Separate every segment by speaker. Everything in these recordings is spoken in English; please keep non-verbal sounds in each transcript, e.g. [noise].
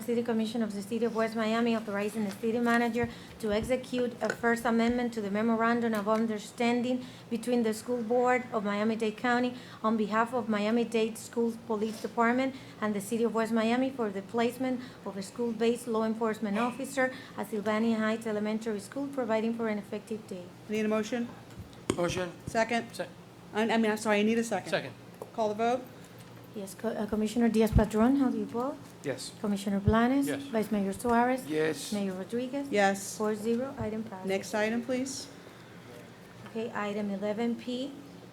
Speaker 1: City Commission of the City of West Miami authorizing the city manager to execute a First Amendment to the memorandum of understanding between the School Board of Miami-Dade County on behalf of Miami-Dade Schools Police Department and the City of West Miami for the placement of a school-based law enforcement officer at Sylvania Heights Elementary School, providing for an effective date.
Speaker 2: Need a motion?
Speaker 3: Motion,
Speaker 2: Second?
Speaker 3: Sec-
Speaker 2: I I mean, I'm sorry, I need a second.
Speaker 3: second.
Speaker 2: Call the vote?
Speaker 1: Yes, Co- uh, Commissioner Diaz-Padrón, how do you vote?
Speaker 3: Yes.
Speaker 1: Commissioner Blanes?
Speaker 3: Yes.
Speaker 1: Vice Mayor Suarez?
Speaker 3: Yes.
Speaker 1: Mayor Rodriguez?
Speaker 2: Yes.
Speaker 1: Four zero, item passes.
Speaker 2: Next item, please.
Speaker 1: Okay, item eleven P.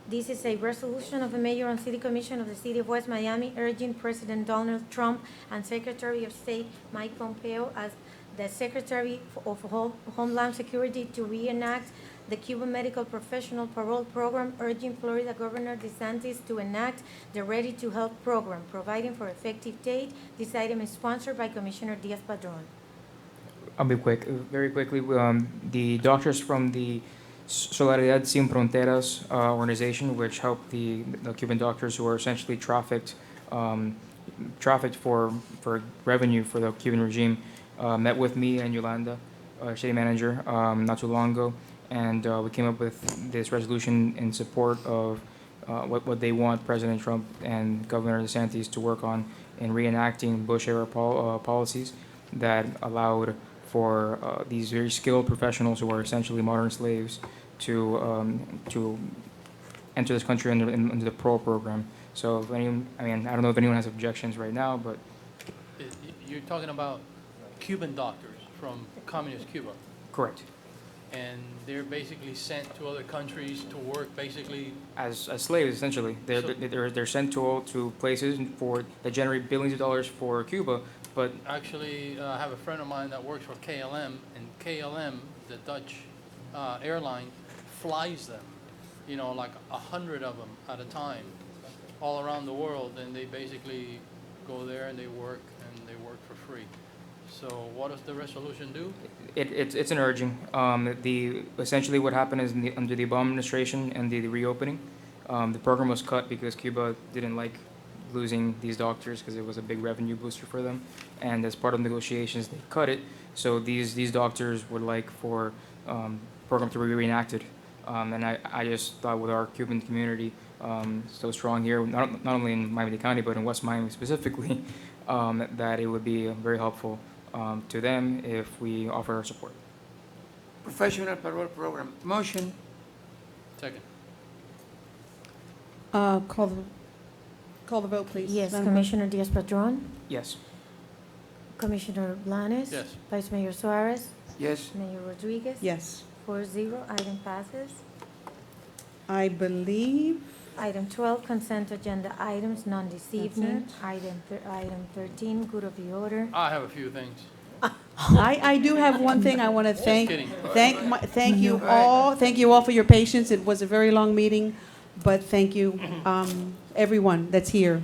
Speaker 1: This is a resolution of the mayor and city commission of the city of West Miami urging President Donald Trump and Secretary of State Mike Pompeo as the Secretary of Ho- Homeland Security to reenact the Cuban Medical Professional Parole Program, urging Florida Governor DeSantis to enact the Ready to Help program, providing for effective date. This item is sponsored by Commissioner Diaz-Padrón.
Speaker 4: I'll be quick, uh, very quickly. Um, the doctors from the Solidaridad Sin Fronteras uh, organization, which helped the, the Cuban doctors who were essentially trafficked, um, trafficked for, for revenue for the Cuban regime, uh, met with me and Yolanda, uh, city manager, um, not too long ago, and uh, we came up with this resolution in support of uh, what, what they want President Trump and Governor DeSantis to work on in reenacting Bush era pol- uh, policies that allowed for uh, these very skilled professionals who are essentially modern slaves to um, to enter this country under, in, under the parole program. So if anyone, I mean, I don't know if anyone has objections right now, but
Speaker 3: Y- y- You're talking about Cuban doctors from communist Cuba,
Speaker 4: correct.
Speaker 3: and they're basically sent to other countries to work, basically,
Speaker 4: As, as slaves, essentially, they're,
Speaker 3: So-
Speaker 4: they're they're sent to all, to places for that generate billions of dollars for Cuba, but
Speaker 3: actually, uh, I have a friend of mine that works for KLM, and KLM, the Dutch uh, airline, flies them, you know, like a hundred of them at a time, all around the world, and they basically go there and they work, and they work for free. So what does the resolution do?
Speaker 4: It, it's, it's an urging. Um, the, essentially what happened is in the, under the Obama administration and the, the reopening, um, the program was cut because Cuba didn't like losing these doctors because it was a big revenue booster for them. And as part of negotiations, they cut it. So these, these doctors would like for, um, program to be reenacted. Um, and I, I just thought with our Cuban community, um, so strong here, not, not only in Miami-Dade County, but in West Miami specifically, [laughs] um, that it would be very helpful um, to them if we offer our support.
Speaker 5: Professional Parole Program. Motion,
Speaker 3: Second.
Speaker 2: Uh, Call the, call the vote, please.
Speaker 1: Yes,
Speaker 2: Madam Clerk.
Speaker 1: Commissioner Diaz-Padrón?
Speaker 4: Yes.
Speaker 1: Commissioner Blanes?
Speaker 3: Yes.
Speaker 1: Vice Mayor Suarez?
Speaker 5: yes.
Speaker 1: Mayor Rodriguez?
Speaker 2: Yes.
Speaker 1: Four zero, item passes.
Speaker 2: I [laughs] believe,
Speaker 1: Item twelve, consent agenda items, none this evening.
Speaker 2: it.
Speaker 1: Item, thir- item thirteen, good of the order.
Speaker 3: I have a few things.
Speaker 2: I, I do have one thing I want to thank.
Speaker 3: kidding.
Speaker 2: Thank, my- thank you all, thank you all for your patience. It was a very long meeting, but thank you, um, everyone that's here.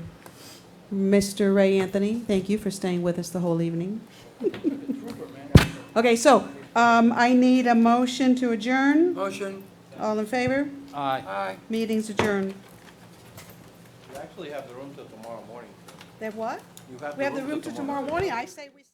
Speaker 2: Mr. Ray Anthony, thank you for staying with us the whole evening. Okay, so um, I need a motion to adjourn.
Speaker 5: Motion,
Speaker 2: All in favor?
Speaker 4: Uh,
Speaker 3: Aye.
Speaker 5: aye.
Speaker 2: Meeting's adjourned.
Speaker 6: You actually have the room till tomorrow morning.
Speaker 2: They have what?
Speaker 6: You have
Speaker 2: We have
Speaker 6: the
Speaker 2: the room
Speaker 6: room
Speaker 2: till
Speaker 6: till
Speaker 2: tomorrow morning. I say we.